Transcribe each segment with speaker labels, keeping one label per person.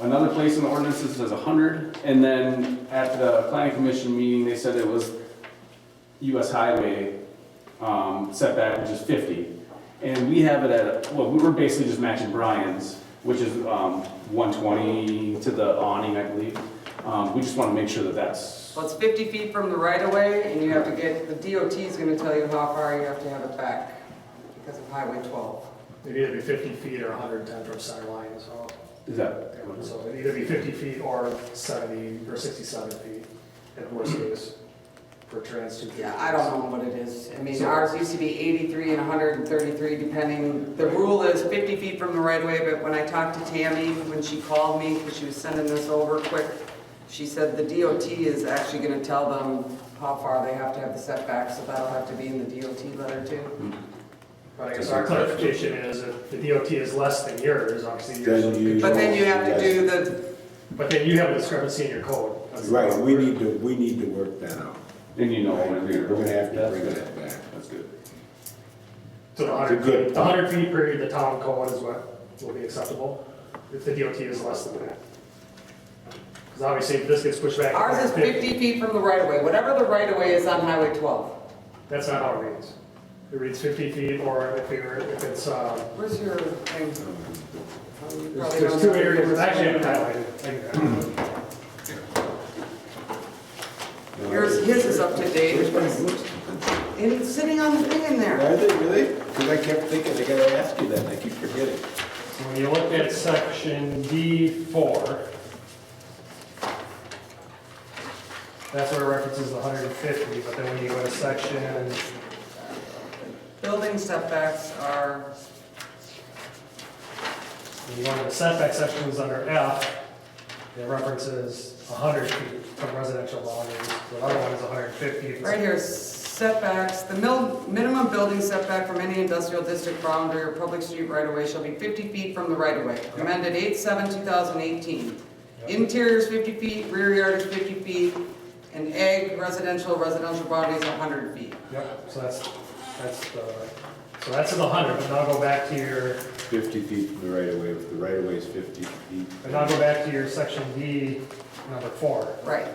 Speaker 1: Another place in the ordinances says hundred, and then at the planning commission meeting, they said it was US highway um, setback, which is fifty. And we have it at, well, we were basically just matching Brian's, which is um, one twenty to the awning, I believe. Um, We just want to make sure that that's,
Speaker 2: Well, it's 50 feet from the right of way, and you have to get, the DOT is going to tell you how far you have to have it back because of Highway 12.
Speaker 3: It'd either be 50 feet or 110 from center line as well.
Speaker 1: is that?
Speaker 3: So it'd either be 50 feet or 70, or 67 feet at worst case for trans two.
Speaker 2: Yeah, I don't know what it is. I mean, ours used to be 83 and 133 depending, the rule is 50 feet from the right of way, but when I talked to Tammy, when she called me, because she was sending this over quick, she said the DOT is actually going to tell them how far they have to have the setback, so that'll have to be in the DOT letter too.
Speaker 3: But I guess our clarification is if the DOT is less than yours, obviously. you
Speaker 4: Then
Speaker 3: should-
Speaker 4: you-
Speaker 2: But then you have to do the,
Speaker 3: But then you have a discrepancy in your code. That's the
Speaker 4: Right,
Speaker 3: problem.
Speaker 4: we need to, we need to work that out.
Speaker 1: Then you know.
Speaker 4: We're
Speaker 1: when you're-
Speaker 4: gonna have to
Speaker 1: That's
Speaker 4: bring
Speaker 1: good.
Speaker 4: that back.
Speaker 1: That's good.
Speaker 3: So the 100
Speaker 4: Good.
Speaker 3: feet, the 100 feet per the town code is what will be acceptable if the DOT is less than that. Because obviously if this gets pushed back. to
Speaker 2: ours is 50 feet from the right of way, whatever the right of way is on Highway 12.
Speaker 3: That's not how it reads. It reads 50 feet or if you're, if it's, um,
Speaker 2: Where's your thing? Oh, you
Speaker 3: There's
Speaker 2: probably
Speaker 3: there's
Speaker 2: don't
Speaker 3: two
Speaker 2: have it.
Speaker 3: areas, I actually have it highlighted.
Speaker 2: Yours, his is up to date.
Speaker 4: Which one is-
Speaker 2: And it's sitting on the thing in there.
Speaker 4: Are they really? Because I kept thinking, I gotta ask you that, and I keep forgetting.
Speaker 3: So when you look at section D4, that's where it references the 150, but then when you go to section,
Speaker 2: Building setbacks are,
Speaker 3: when you go to the setback sections under F, it references 100 feet from residential boundaries, the other one is 150. It's-
Speaker 2: right here, setbacks, the mil, minimum building setback from any industrial district boundary or public street right of way shall be fifty feet from the right of way. Amended eight seven two thousand eighteen. Interior is fifty feet, rear yard is fifty feet, and egg residential, residential boundary is hundred feet.
Speaker 3: Yep, so that's, that's the, so that's in the 100, but now go back to your
Speaker 4: Fifty feet from the right of way, if the right of way is fifty feet.
Speaker 3: And now go back to your section D, number four.
Speaker 2: Right,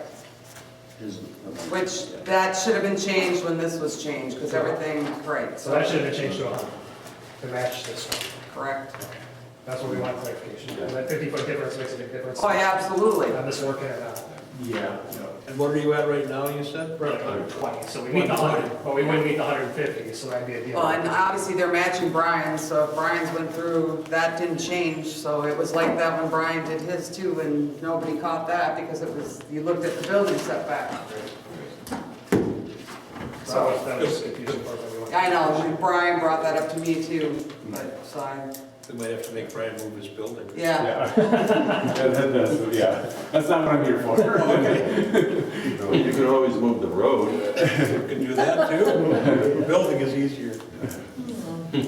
Speaker 4: Isn't-
Speaker 2: which, that should have been changed when this was changed, because everything, right,
Speaker 3: So that should have been changed to 100 to match this one.
Speaker 2: correct?
Speaker 3: That's what we want clarification. And that 50-foot difference makes a big difference.
Speaker 2: Oh, yeah, absolutely.
Speaker 3: On this working or not.
Speaker 1: Yeah.
Speaker 5: And what are you at right now, you said?
Speaker 3: We're like 120, so we meet the 100, but we wouldn't meet the 150, so that'd be a deal.
Speaker 2: Well, and obviously they're matching Brian's, so if Brian's went through, that didn't change, so it was like that when Brian did his too, and nobody caught that because it was, you looked at the building setback.
Speaker 3: So that was confusing part that we want.
Speaker 2: I know, and Brian brought that up to me too, but, so, I-
Speaker 5: They might have to make Brian move his building.
Speaker 2: yeah.
Speaker 1: Yeah. That- that- that's- Yeah, that's not what I'm here for.
Speaker 6: You could always move the road.
Speaker 5: You can do that too. Building is easier.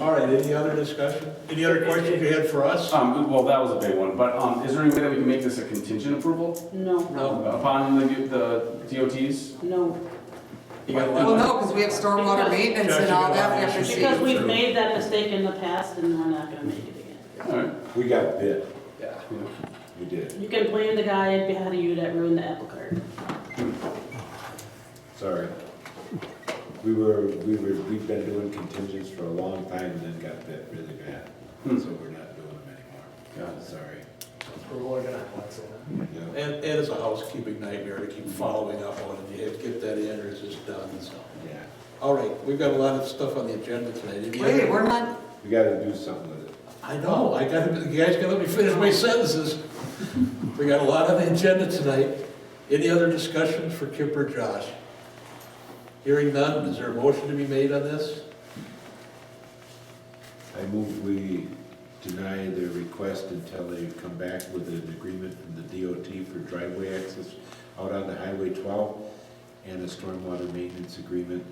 Speaker 5: All right, any other discussion? Any other questions you had for us?
Speaker 1: Um, well, that was a big one, but, um, is there any way that we can make this a contingent approval?
Speaker 7: No,
Speaker 1: Upon the, the DOTs?
Speaker 7: no,
Speaker 5: You got a
Speaker 2: Well,
Speaker 5: lot
Speaker 2: no, because we have stormwater maintenance and all that we have to
Speaker 7: because
Speaker 2: see.
Speaker 7: we've made that mistake in the past and we're not gonna make it again.
Speaker 1: Alright.
Speaker 4: We got bit,
Speaker 5: Yeah.
Speaker 4: we did,
Speaker 7: You can blame the guy ahead of you that ruined the apple cart.
Speaker 4: sorry. We were, we were, we've been doing contingents for a long time and then got bit really bad,
Speaker 1: Hmm.
Speaker 4: so we're not doing them
Speaker 1: Got
Speaker 4: anymore.
Speaker 1: it.
Speaker 4: Sorry.
Speaker 3: We're really gonna have lots of that.
Speaker 4: Yeah.
Speaker 5: And, and it's a housekeeping nightmare to keep following up on it. You have to get that in or it's just done, so.
Speaker 4: Yeah,
Speaker 5: All right, we've got a lot of stuff on the agenda tonight. Any other-
Speaker 2: Wait, we're not,
Speaker 4: we gotta do something with it.
Speaker 5: I know, I gotta, you guys gotta let me finish my sentences. We got a lot on the agenda tonight. Any other discussions for Kip or Josh? Hearing none, is there a motion to be made on this?
Speaker 4: I move we deny the request until they come back with an agreement from the DOT for driveway access out onto Highway 12 and a stormwater maintenance agreement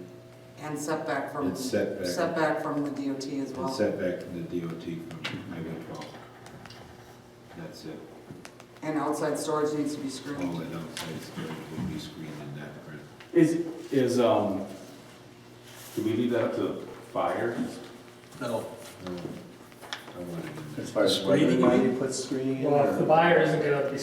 Speaker 2: and setback from,
Speaker 4: and setback,
Speaker 2: setback from the DOT as
Speaker 4: and
Speaker 2: well,
Speaker 4: setback from the DOT from Highway 12. That's it.
Speaker 2: and outside storage needs to be
Speaker 4: All
Speaker 2: screened.
Speaker 4: that outside storage will be screened in that print.
Speaker 1: Is, is, um, do we leave that up to fire?
Speaker 5: No.
Speaker 4: No,
Speaker 8: I want it in there.
Speaker 4: As far as
Speaker 9: Screening,
Speaker 4: whether
Speaker 9: you
Speaker 4: or not
Speaker 9: mean?
Speaker 4: you put screening in.
Speaker 3: Well,
Speaker 4: or-
Speaker 3: if the buyer isn't gonna be